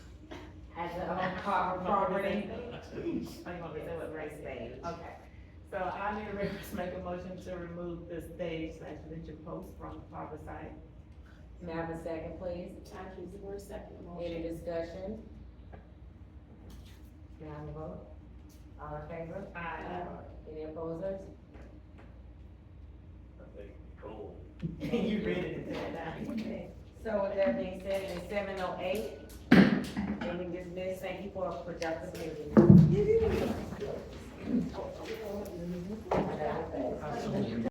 the whole car From property. Grace. I'm gonna say what Grace said. Okay, so I need a reference, make a motion to remove the stage slash lynching post from the oh harbor side. May I have a second, please? Time is your second Any motion. discussion? May I have a vote? All in favor? Aye. Any opposers? I think Nicole. You read it to that. So with that being said, it's seven oh eight. And we dismiss, thank you for a productive meeting.